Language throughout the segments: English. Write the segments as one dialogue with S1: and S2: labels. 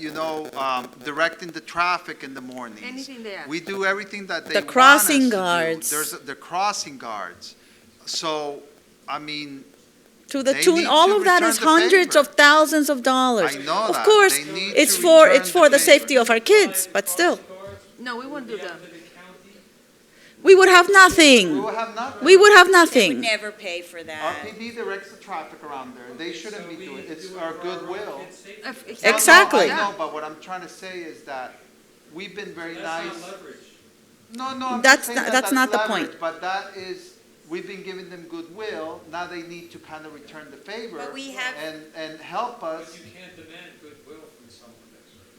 S1: you know, um, directing the traffic in the mornings.
S2: Anything there.
S1: We do everything that they
S3: The
S1: want us
S3: crossing
S1: to do.
S3: guards.
S1: There's, the crossing guards. So, I mean,
S3: To the
S1: They
S3: tune,
S1: need
S3: all
S1: to
S3: of that is
S1: return the
S3: hundreds
S1: favor.
S3: of thousands of dollars.
S1: I know
S3: Of
S1: that.
S3: course,
S1: They need
S3: it's
S1: to
S3: for,
S1: return
S3: it's
S1: the
S3: for the
S1: favor.
S3: safety of our kids, but still,
S2: No, we won't do that.
S3: we would have
S1: we will
S3: nothing.
S1: have nothing.
S3: We would have
S4: would
S3: nothing.
S4: never pay for that.
S1: RPD directs the traffic around there, and they shouldn't be doing, it. it's our goodwill.
S2: Uh, If- if-
S1: No, no,
S3: Exactly.
S1: I know, but what I'm trying to say is that we've been very nice. No, no, I'm
S3: That's
S1: just saying
S3: not-
S1: that
S3: that's
S1: that's
S3: not the
S1: leverage,
S3: point.
S1: But that is, we've been giving them goodwill, now they need to kind of return the favor.
S4: But we have-
S1: And, and help us.
S5: You can't demand goodwill from someone.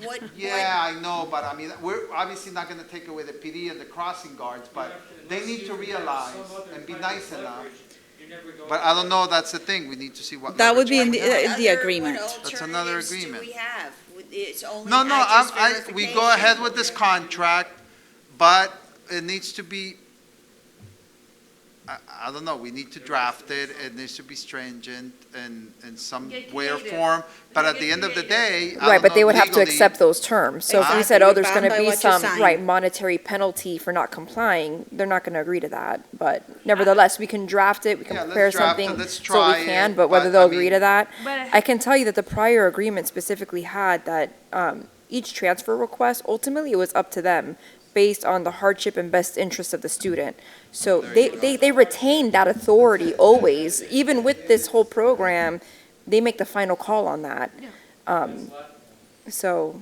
S4: What,
S1: Yeah,
S4: what,
S1: I know, but I mean, we're obviously not gonna take away the PD and the crossing guards, but they need to realize and be nice enough. But I don't know, that's the thing, we need to see what.
S3: That would be in
S1: leverage we
S3: the-
S1: have.
S3: uh,
S4: other- what
S3: agreement.
S1: That's another
S4: alternatives do
S1: agreement.
S4: we have? It's only,
S1: No, no, I'm,
S4: uh, I
S1: I,
S4: just
S1: we go ahead
S4: verification.
S1: with this contract, but it needs to be, I, I don't know, we need to draft it, it needs to be stringent and, in some
S2: Get
S1: way or
S2: creative.
S1: form, but at
S2: Get
S1: the end of the day, I
S6: Right,
S1: don't
S6: but they
S1: know
S6: would have to
S1: legally-
S6: accept those terms. So if we said,
S3: Exactly.
S6: oh, there's
S3: Bound
S6: going
S3: by
S6: to be
S3: what you
S6: some,
S3: sign.
S6: right, monetary penalty for not complying, they're not going to agree to that. But nevertheless, we can draft it, we can
S1: Yeah, let's
S6: prepare
S1: draft it,
S6: something
S1: let's
S6: so
S1: try
S6: we
S1: it,
S6: can, but
S1: but,
S6: whether
S1: I
S6: they'll agree
S1: mean-
S6: to that,
S2: But-
S6: I can tell you that the prior agreement specifically had that um, each transfer request, ultimately, it was up to them based on the hardship and best interest of the student. So they, they, they retain that authority always, even with this whole program, they make the final call on that. Um, So.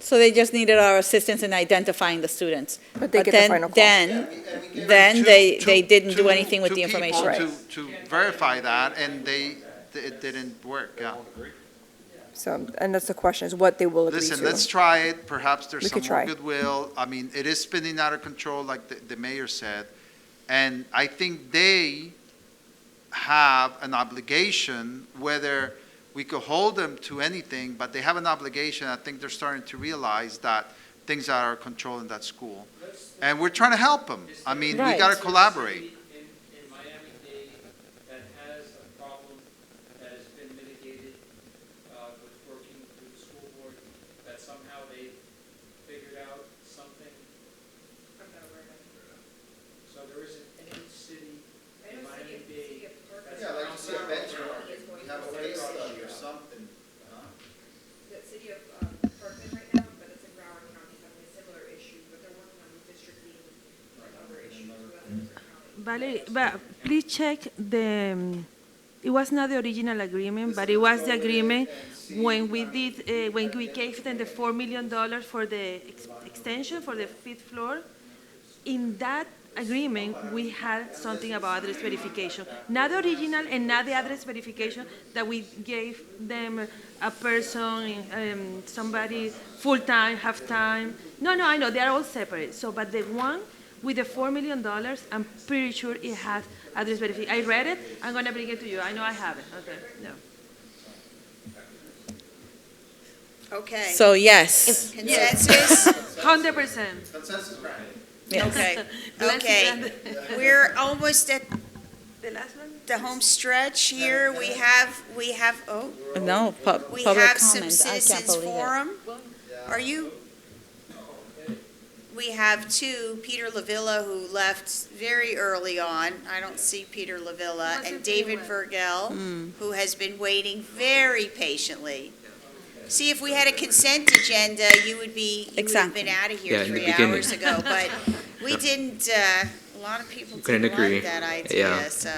S3: So they just needed our assistance in identifying the students.
S6: But they get the
S3: then-
S6: final call.
S3: Then,
S1: And we gave
S3: then
S1: two-
S3: they-
S1: two-
S3: they didn't do
S1: two-
S3: anything with
S1: two
S3: the
S1: people
S3: information.
S1: To, to verify that, and they, it didn't work, yeah.
S6: So, and that's the question, is what they will agree
S1: Listen, let's
S6: to.
S1: try it, perhaps
S6: We
S1: there's some
S6: could
S1: more
S6: try.
S1: goodwill. I mean, it is spinning out of control, like the, the mayor said. And I think they have an obligation, whether we could hold them to anything, but they have an obligation. I think they're starting to realize that things are out of control in that school. And we're trying to help them. I mean, we
S3: Right.
S1: gotta collaborate.
S5: In, in Miami-Dade that has a problem that has been mitigated, uh, with working through the school board, that somehow they figured out something. So there isn't any city in Miami-Dade that's.
S7: Yeah, like you see a
S5: around-
S7: benchmark, we have a case study or something.
S8: the city of um, Berkeley right now, but it's in Broward County having a similar issue, but they're working on redistricting and other issues with other counties.
S2: Valerie, but please check the, um, it was not the original agreement, but it was the agreement when we did, uh, when we gave them the $4 million for the ex- extension for the fifth floor. In that agreement, we had something about address verification. Not the original and not the address verification that we gave them uh, a person, um, somebody full-time, half-time. No, no, I know, they are all separate. So, but the one with the $4 million, I'm pretty sure it has address verification. I read it, I'm gonna bring it to you. I know I have it, okay, no.
S4: Okay.
S3: so yes.
S4: Consensus?
S2: 100%.
S7: Consensus, right?
S3: Yes.
S4: Okay,
S2: Bless
S4: okay.
S2: you.
S4: We're almost at
S2: The last one?
S4: the home stretch here. We have, we have, oh,
S3: No, pu-
S4: we
S3: public
S4: have some
S3: comment, I can't
S4: citizens
S3: believe it.
S4: forum. Are you? We have two, Peter Lavilla, who left very early on. I don't see Peter Lavilla,
S2: What's
S4: and
S2: his name
S4: David
S2: was?
S3: Hmm.
S4: Vergel, who has been waiting very patiently. See, if we had a consent agenda, you would be, you would have
S3: Exactly.
S4: been out of
S9: Yeah,
S4: here
S9: in the
S4: three
S9: beginning.
S4: hours ago, but we didn't, uh, a lot of people
S9: Couldn't
S4: didn't
S9: agree.
S4: like that idea,
S9: Yeah.
S4: so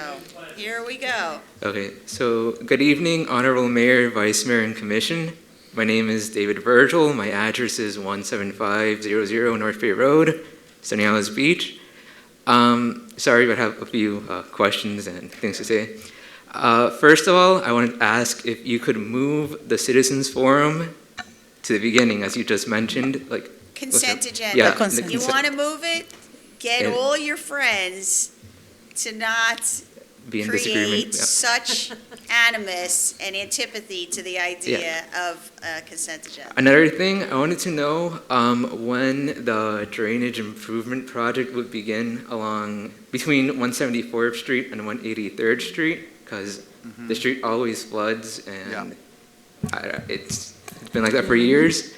S4: here we go.
S9: Okay, so good evening, Honorable Mayor, Vice Mayor, and Commission. My name is David Virgil. My address is 17500 North Bay Road, Sunny Isles Beach. Um, sorry, but I have a few uh, questions and things to say. Uh, first of all, I wanted to ask if you could move the Citizens Forum to the beginning, as you just mentioned. Like,
S4: Consent agenda.
S9: yeah,
S3: consent.
S9: the
S4: You
S9: consent-
S4: want to move it? Get
S9: Yeah.
S4: all your friends to not
S9: be in
S4: create
S9: disagreement. yeah.
S4: such animus and antipathy to the idea of a consent agenda.
S9: Another thing, I wanted to know um, when the drainage improvement project would begin along between 174th Street and 183rd Street, because the street always floods and I- it's been like that for years.